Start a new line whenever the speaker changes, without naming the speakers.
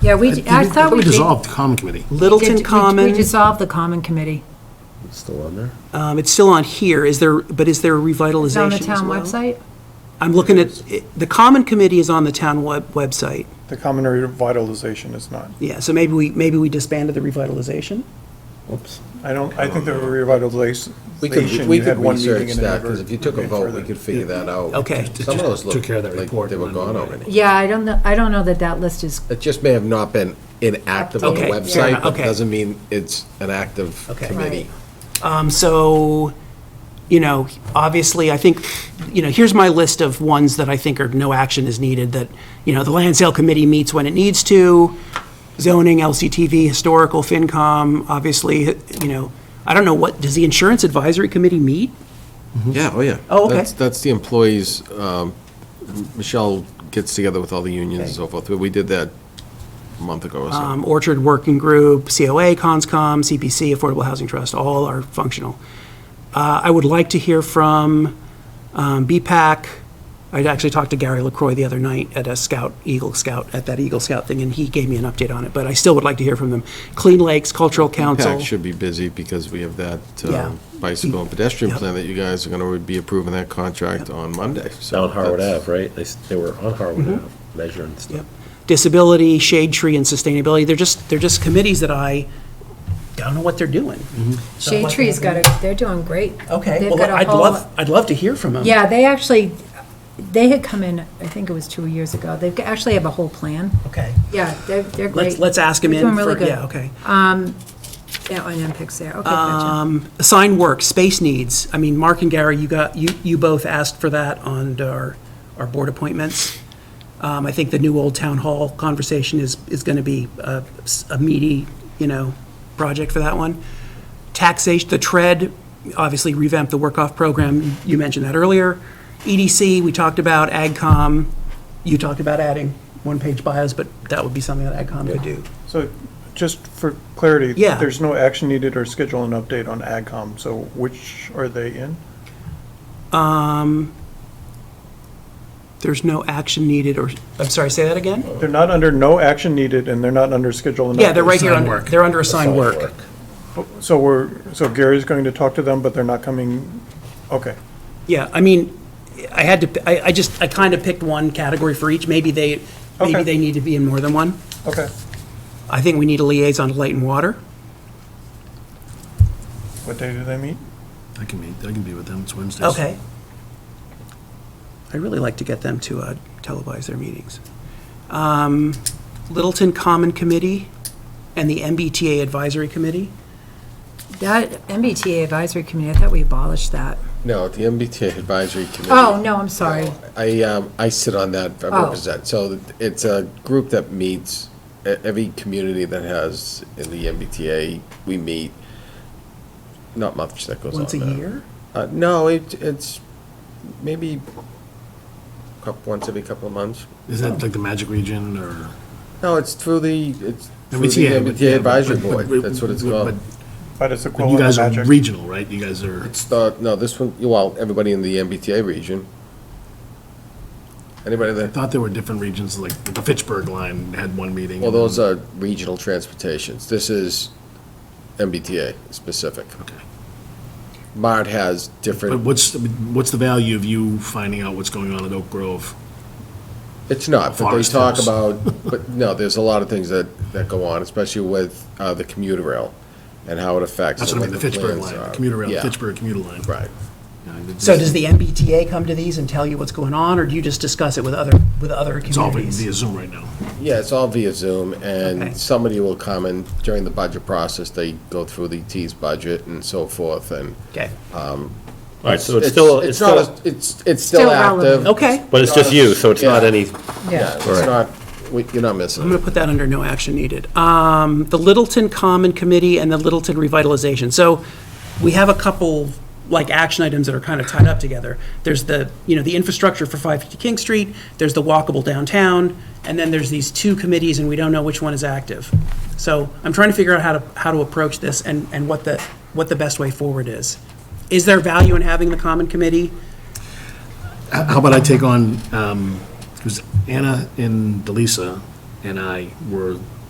Yeah,
Uh,
we, I thought we did.
dissolved the common committee.
did-
Littleton
we- We
Commons,
dissolved the common committee.
It's still on there?
um, it's still on here, is there, but is there a revitalization
It's on the
as
town
well?
website?
I'm looking at, the Common Committee is on the town web, website,
The common revitalization is not.
yeah, so maybe we, maybe we disbanded the revitalization?
Whoops.
I don't, I think the revitalization,
We could,
you
we could
had one meeting
research
and it
that,
never.
because if you took a
went
vote, we
further.
could figure that out.
Okay.
Some of those
Took care of that
looked like
report
they were
when we
gone
made it.
already.
Yeah, I don't know, I don't know that that list is,
It just may have not been inactive on the
Okay, fair
website,
enough,
but
okay.
doesn't mean it's an active
Okay.
committee.
Um, so, you know, obviously, I think, you know, here's my list of ones that I think are, no action is needed, that, you know, the land sale committee meets when it needs to, zoning, LCTV, historical, FinCom, obviously, you know, I don't know what, does the insurance advisory committee meet?
Yeah, oh, yeah.
Oh, okay.
That's, that's the employees, um, Michelle gets together with all the unions and so forth. We did that a month ago or so.
Um, Orchard Working Group, COA, CONSCOM, CPC, Affordable Housing Trust, all are functional. Uh, I would like to hear from um, BPAC. I actually talked to Gary LaCroix the other night at a Scout, Eagle Scout, at that Eagle Scout thing, and he gave me an update on it, but I still would like to hear from them. Clean Lakes Cultural Council.
PAC should be busy because we have that uh,
Yeah.
bicycle and pedestrian
Yep.
plan that you guys are going to be approving that contract on Monday. so
Down Harwood
that's-
Ave, right? They, s- they were on Harwood Ave measuring stuff.
Yep. Disability, Shade Tree, and Sustainability. They're just, they're just committees that I don't know what they're doing.
Shade
what
Tree's got a, they're doing great.
Okay,
They've
well,
got a
I'd
whole-
love, I'd love to hear from them.
Yeah, they actually, they had come in, I think it was two years ago. They actually have a whole plan.
Okay.
Yeah, they're, they're great.
Let's, let's ask him
They're
in
doing really
for,
good.
yeah, okay.
Yeah, on MPICs there, okay,
Um,
gotcha.
Sign work, space needs. I mean, Mark and Gary, you got, you, you both asked for that on our, our board appointments. Um, I think the new old town hall conversation is, is gonna be a, a meaty, you know, project for that one. Taxation, the TRED, obviously revamp the work-off program, you mentioned that earlier. EDC, we talked about, AgCom, you talked about adding one-page bios, but that would be something that AgCom could do.
So just for clarity.
Yeah.
There's no action needed or schedule an update on AgCom, so which are they in?
There's no action needed, or, I'm sorry, say that again?
They're not under no action needed and they're not under schedule and update.
Yeah, they're right here,
Assigned
under-
work.
they're under assigned
Site
work.
So we're, so Gary's going to talk to them, but they're not coming, okay.
Yeah, I mean, I had to, I, I just, I kind of picked one category for each, maybe they, maybe
Okay.
they need to be in more than one.
Okay,
I think we need a liaison to light and water.
what day do they meet?
I can meet, I can be with them, it's Wednesdays.
Okay. I'd really like to get them to uh, televise their meetings. Um, Littleton Common Committee and the MBTA Advisory Committee.
That MBTA advisory committee, I thought we abolished that.
No, the MBTA Advisory Committee.
Oh, no, I'm sorry.
I, um, I sit on that, I
Oh.
represent, so it's a group that meets, e- every community that has in the MBTA, we meet, not much that goes on
Once a
now.
year?
Uh, no, it, it's maybe coup- once every couple of months.
Is that like the Magic Region or?
No, it's through the, it's through the
MBTA, but- yeah,
MBTA Advisory
but- but-
Board, that's what it's
but-
called.
But it's
But you
equivalent
guys
to
are
magic.
regional, right? You guys are,
It's the, no, this one, well, everybody in the MBTA region. Anybody
I
that
thought there were different regions, like the Fitchburg line had one meeting.
Well, those are regional transportations. This is MBTA specific.
Okay.
MART has
But
different,
what's, what's the value of you finding out what's going on at Oak Grove?
it's not, but they
Forest
talk
Hills.
about, but no, there's a lot of things that, that go on, especially with uh, the commuter rail and how it affects.
That's
and
what I mean, the Fitchburg
plans
line,
are.
the commuter rail,
Yeah,
Fitchburg commuter line.
Right.
Yeah, it's
So
just-
does the MBTA come to these and tell you what's going on, or do you just discuss it with other, with other
It's all via
communities?
via Zoom right now.
Yeah, it's all via Zoom,
Okay.
and somebody will come and during the budget process, they go through the T's budget and so forth, and
Okay,
All right, so it's still, it's
It's not,
still,
a- it's, it's still
Still relevant.
active.
okay.
but it's just you, so it's not
Yeah.
any,
Yeah, it's
Right.
not, we- you're not
I'm
missing
going
it.
to put that under no action needed. Um, The Littleton Common Committee and the Littleton Revitalization. So we have a couple, like, action items that are kind of tied up together. There's the, you know, the infrastructure for 550 King Street, there's the walkable downtown, and then there's these two committees, and we don't know which one is active. So I'm trying to figure out how to, how to approach this and, and what the, what the best way forward is. Is there value in having the Common Committee?
How about I take on, um, it was Anna and Delisa, and I were